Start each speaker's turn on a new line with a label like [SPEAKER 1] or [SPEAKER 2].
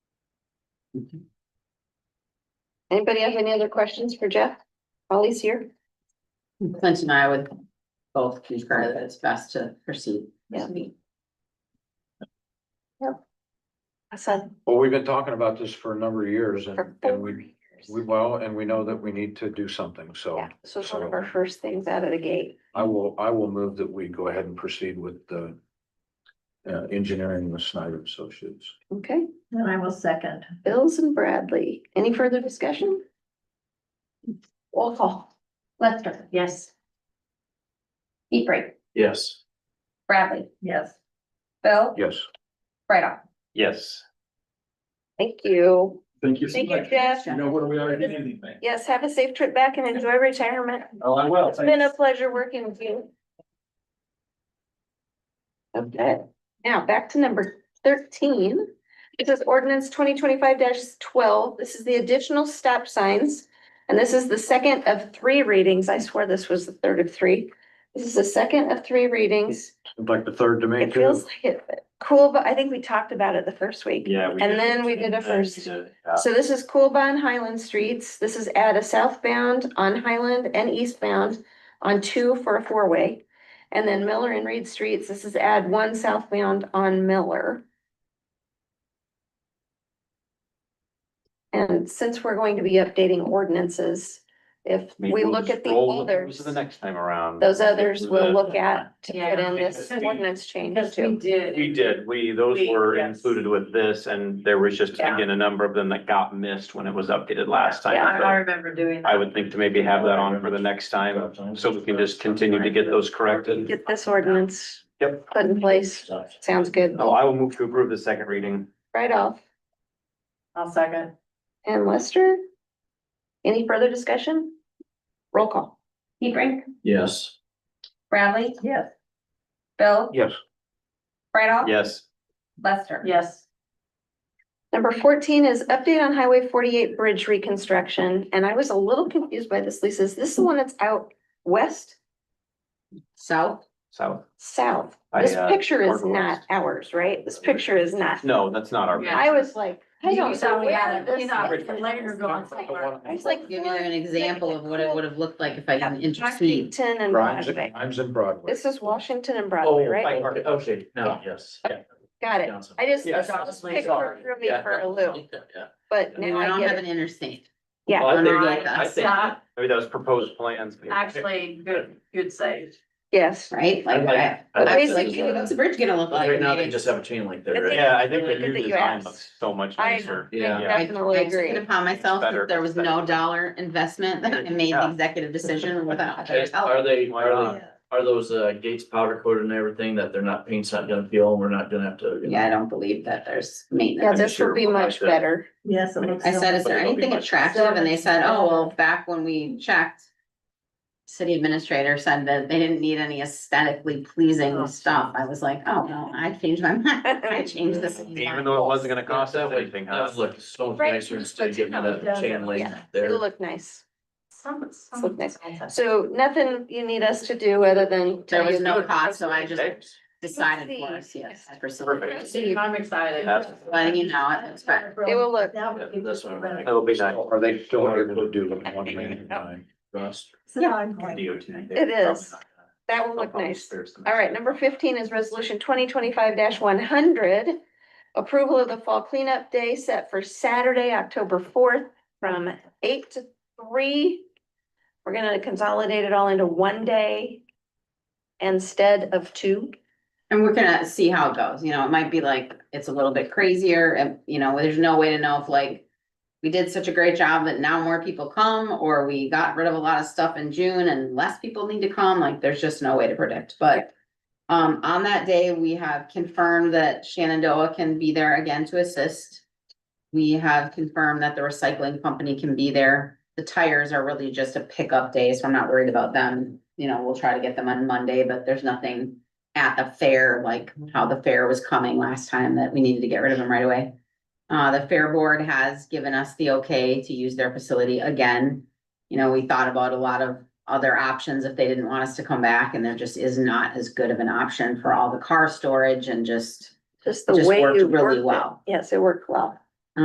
[SPEAKER 1] Anybody have any other questions for Jeff? While he's here?
[SPEAKER 2] Clint and I would both concur that it's best to proceed.
[SPEAKER 1] Yeah. Hassan.
[SPEAKER 3] Well, we've been talking about this for a number of years
[SPEAKER 1] for
[SPEAKER 3] and,
[SPEAKER 1] four
[SPEAKER 3] and we,
[SPEAKER 1] years.
[SPEAKER 3] we, well, and we know that we need to do something, so
[SPEAKER 1] Yeah, so it's one of our first things out of the gate.
[SPEAKER 3] I will, I will move that we go ahead and proceed with the uh, engineering with Snyder Associates.
[SPEAKER 1] Okay,
[SPEAKER 4] I will second.
[SPEAKER 1] Bills and Bradley. Any further discussion? Roll call.
[SPEAKER 5] Lester,
[SPEAKER 4] Yes.
[SPEAKER 5] Hebrink,
[SPEAKER 6] Yes.
[SPEAKER 5] Bradley,
[SPEAKER 4] Yes.
[SPEAKER 5] Bill,
[SPEAKER 3] Yes,
[SPEAKER 5] right off.
[SPEAKER 6] Yes.
[SPEAKER 1] Thank you.
[SPEAKER 6] Thank you so
[SPEAKER 1] Thank you,
[SPEAKER 6] much.
[SPEAKER 1] Jeff.
[SPEAKER 6] You know where we are in anything.
[SPEAKER 1] Yes, have a safe trip back and enjoy retirement.
[SPEAKER 6] Oh, I will.
[SPEAKER 1] It's been a
[SPEAKER 6] Thanks.
[SPEAKER 1] pleasure working with you. Okay, now back to number thirteen. It says ordinance twenty twenty-five twelve. This is the additional stop signs. And this is the second of three readings. I swear this was the third of three. This is the second of three readings.
[SPEAKER 3] Seems like the third to me
[SPEAKER 1] It
[SPEAKER 3] too.
[SPEAKER 1] feels like it, but cool, but I think we talked about it the first week.
[SPEAKER 6] Yeah. we
[SPEAKER 1] And
[SPEAKER 6] did.
[SPEAKER 1] then we did a
[SPEAKER 6] And
[SPEAKER 1] first.
[SPEAKER 6] we did, yeah.
[SPEAKER 1] So this is Coolbahn Highland Streets. This is at a southbound on Highland and eastbound on two for a four-way. And then Miller and Reed Streets, this is add one southbound on Miller. And since we're going to be updating ordinances, if
[SPEAKER 6] Maybe
[SPEAKER 1] we
[SPEAKER 6] we'll
[SPEAKER 1] look
[SPEAKER 6] just
[SPEAKER 1] at the
[SPEAKER 6] roll with those
[SPEAKER 1] others,
[SPEAKER 6] The next time around.
[SPEAKER 1] those others we'll
[SPEAKER 6] The-
[SPEAKER 1] look at to put
[SPEAKER 4] Yeah.
[SPEAKER 1] in this
[SPEAKER 6] Because we-
[SPEAKER 1] ordinance change
[SPEAKER 4] Because we
[SPEAKER 1] too.
[SPEAKER 4] did.
[SPEAKER 6] We did, we, those
[SPEAKER 4] We-
[SPEAKER 6] were
[SPEAKER 4] yes.
[SPEAKER 6] included with this, and there was just,
[SPEAKER 4] Yeah.
[SPEAKER 6] again, a number of them that got missed when it was updated last
[SPEAKER 4] Yeah, I I
[SPEAKER 6] time.
[SPEAKER 4] remember doing.
[SPEAKER 6] So I would think to maybe have that on for the next time, so we can just continue to get those corrected.
[SPEAKER 1] Get this ordinance
[SPEAKER 6] Yep.
[SPEAKER 1] put in place. Sounds good.
[SPEAKER 6] Oh, I will move to approve the second reading.
[SPEAKER 1] Right off.
[SPEAKER 4] I'll second.
[SPEAKER 1] And Lester? Any further discussion? Roll call.
[SPEAKER 5] Hebrink,
[SPEAKER 6] Yes.
[SPEAKER 5] Bradley,
[SPEAKER 4] Yes.
[SPEAKER 5] Bill,
[SPEAKER 3] Yes,
[SPEAKER 5] right
[SPEAKER 1] Oh.
[SPEAKER 5] off.
[SPEAKER 6] Yes.
[SPEAKER 5] Lester.
[SPEAKER 4] Yes.
[SPEAKER 1] Number fourteen is update on Highway forty-eight bridge reconstruction, and I was a little confused by this, Lisa. Is this the one that's out west,
[SPEAKER 2] South,
[SPEAKER 6] So,
[SPEAKER 1] south?
[SPEAKER 6] I,
[SPEAKER 1] This
[SPEAKER 6] uh,
[SPEAKER 1] picture is
[SPEAKER 6] Parker
[SPEAKER 1] not
[SPEAKER 6] West.
[SPEAKER 1] ours, right? This picture is not.
[SPEAKER 6] no, that's not our.
[SPEAKER 4] Yeah.
[SPEAKER 1] I was like, I
[SPEAKER 4] You
[SPEAKER 1] don't know
[SPEAKER 4] thought we
[SPEAKER 1] where
[SPEAKER 4] had it,
[SPEAKER 1] this
[SPEAKER 4] you thought
[SPEAKER 1] is.
[SPEAKER 4] we later going somewhere.
[SPEAKER 1] I was like.
[SPEAKER 2] give you an example of what it would have looked like if I
[SPEAKER 1] Yeah,
[SPEAKER 2] didn't intercede.
[SPEAKER 1] Washington and
[SPEAKER 3] Grimes,
[SPEAKER 1] Broadway.
[SPEAKER 3] Grimes and Broadway.
[SPEAKER 1] This is Washington and Broadway, right?
[SPEAKER 6] Oh, okay,
[SPEAKER 1] no,
[SPEAKER 6] yes.
[SPEAKER 1] Got it. I just,
[SPEAKER 6] Yeah.
[SPEAKER 1] this picture threw me for a loop, but
[SPEAKER 2] We
[SPEAKER 1] now
[SPEAKER 2] don't
[SPEAKER 1] I
[SPEAKER 2] have
[SPEAKER 1] get
[SPEAKER 2] an
[SPEAKER 1] it.
[SPEAKER 2] interstate.
[SPEAKER 1] Yeah.
[SPEAKER 6] Well, I think-
[SPEAKER 2] Unlike
[SPEAKER 6] I
[SPEAKER 2] us,
[SPEAKER 6] think-
[SPEAKER 4] Not
[SPEAKER 6] Maybe that was proposed plans.
[SPEAKER 4] actually good, good save.
[SPEAKER 1] Yes.
[SPEAKER 2] Right? Like, I,
[SPEAKER 1] But
[SPEAKER 2] I was like,
[SPEAKER 1] basically-
[SPEAKER 2] hey, what's the bridge gonna look like?
[SPEAKER 7] Right now, they
[SPEAKER 2] Maybe-
[SPEAKER 7] just have a chain link
[SPEAKER 1] I
[SPEAKER 7] there,
[SPEAKER 1] think-
[SPEAKER 7] right?
[SPEAKER 6] Yeah, I think the
[SPEAKER 1] Really good that
[SPEAKER 6] new
[SPEAKER 1] you
[SPEAKER 6] design
[SPEAKER 1] asked.
[SPEAKER 6] looks so much
[SPEAKER 1] I-
[SPEAKER 6] nicer.
[SPEAKER 7] Yeah.
[SPEAKER 2] I- I
[SPEAKER 1] Definitely
[SPEAKER 2] took
[SPEAKER 1] agree.
[SPEAKER 2] it upon myself
[SPEAKER 6] Better.
[SPEAKER 2] that there was no dollar investment that I made the
[SPEAKER 6] Yeah.
[SPEAKER 2] executive decision without. their
[SPEAKER 7] Is-
[SPEAKER 2] help.
[SPEAKER 7] Are they,
[SPEAKER 6] Why
[SPEAKER 7] are
[SPEAKER 6] not?
[SPEAKER 7] they, are those uh gates powder coated and everything that they're not, paint's not gonna peel and we're not gonna have to? you know?
[SPEAKER 2] Yeah, I don't believe that there's
[SPEAKER 1] Yeah,
[SPEAKER 2] maintenance.
[SPEAKER 6] I'm
[SPEAKER 1] this will
[SPEAKER 6] sure
[SPEAKER 1] be
[SPEAKER 6] we'll
[SPEAKER 1] much
[SPEAKER 6] have to-
[SPEAKER 1] better.
[SPEAKER 4] Yes. it looks
[SPEAKER 2] I said, is
[SPEAKER 4] so-
[SPEAKER 2] there
[SPEAKER 6] But it'll be
[SPEAKER 2] anything
[SPEAKER 6] much-
[SPEAKER 2] attractive? And they said, oh, well, back when we checked. City administrator said that they didn't need any aesthetically
[SPEAKER 6] Oh.
[SPEAKER 2] pleasing stuff. I was like, oh, no, I changed my mind. I changed this.
[SPEAKER 6] Even though it wasn't gonna cost
[SPEAKER 7] That
[SPEAKER 6] us
[SPEAKER 7] would,
[SPEAKER 6] anything, huh?
[SPEAKER 7] that would look so much
[SPEAKER 1] Right,
[SPEAKER 7] nicer
[SPEAKER 4] just
[SPEAKER 7] instead of getting
[SPEAKER 4] put it
[SPEAKER 7] that
[SPEAKER 4] down.
[SPEAKER 7] chain link
[SPEAKER 1] Yeah. It'll
[SPEAKER 7] there.
[SPEAKER 1] look nice.
[SPEAKER 4] Some, some.
[SPEAKER 1] Look nice. So nothing you need us to do other than. tell
[SPEAKER 2] There was
[SPEAKER 1] you
[SPEAKER 2] no
[SPEAKER 1] the-
[SPEAKER 2] cost, so I just
[SPEAKER 6] Okay.
[SPEAKER 2] decided for us, yes. I proceeded.
[SPEAKER 6] Perfect.
[SPEAKER 4] I'm excited.
[SPEAKER 6] Absolutely.
[SPEAKER 2] Letting you know, it's fine.
[SPEAKER 1] It will look-
[SPEAKER 4] That would be
[SPEAKER 7] Yeah, that's what I'm
[SPEAKER 4] better.
[SPEAKER 7] like.
[SPEAKER 6] It'll be nice.
[SPEAKER 3] Are they still able to do it one man at a time?
[SPEAKER 7] Rust.
[SPEAKER 1] It is. That will look nice. All right, number fifteen is resolution twenty twenty-five one hundred. Approval of the fall cleanup day set for Saturday, October fourth, from eight to three. We're gonna consolidate it all into one day instead of two.
[SPEAKER 2] And we're gonna see how it goes, you know, it might be like, it's a little bit crazier, and, you know, there's no way to know if like. We did such a great job that now more people come, or we got rid of a lot of stuff in June and less people need to come, like, there's just no way to predict, but. Um, on that day, we have confirmed that Shenandoah can be there again to assist. We have confirmed that the recycling company can be there, the tires are really just a pickup day, so I'm not worried about them. You know, we'll try to get them on Monday, but there's nothing at the fair, like how the fair was coming last time that we needed to get rid of them right away. Uh, the fair board has given us the okay to use their facility again. You know, we thought about a lot of other options if they didn't want us to come back and there just is not as good of an option for all the car storage and just.
[SPEAKER 1] Just the
[SPEAKER 2] Just
[SPEAKER 1] way
[SPEAKER 2] worked
[SPEAKER 1] you
[SPEAKER 2] really
[SPEAKER 1] worked it.
[SPEAKER 2] well.
[SPEAKER 1] Yes, it worked well.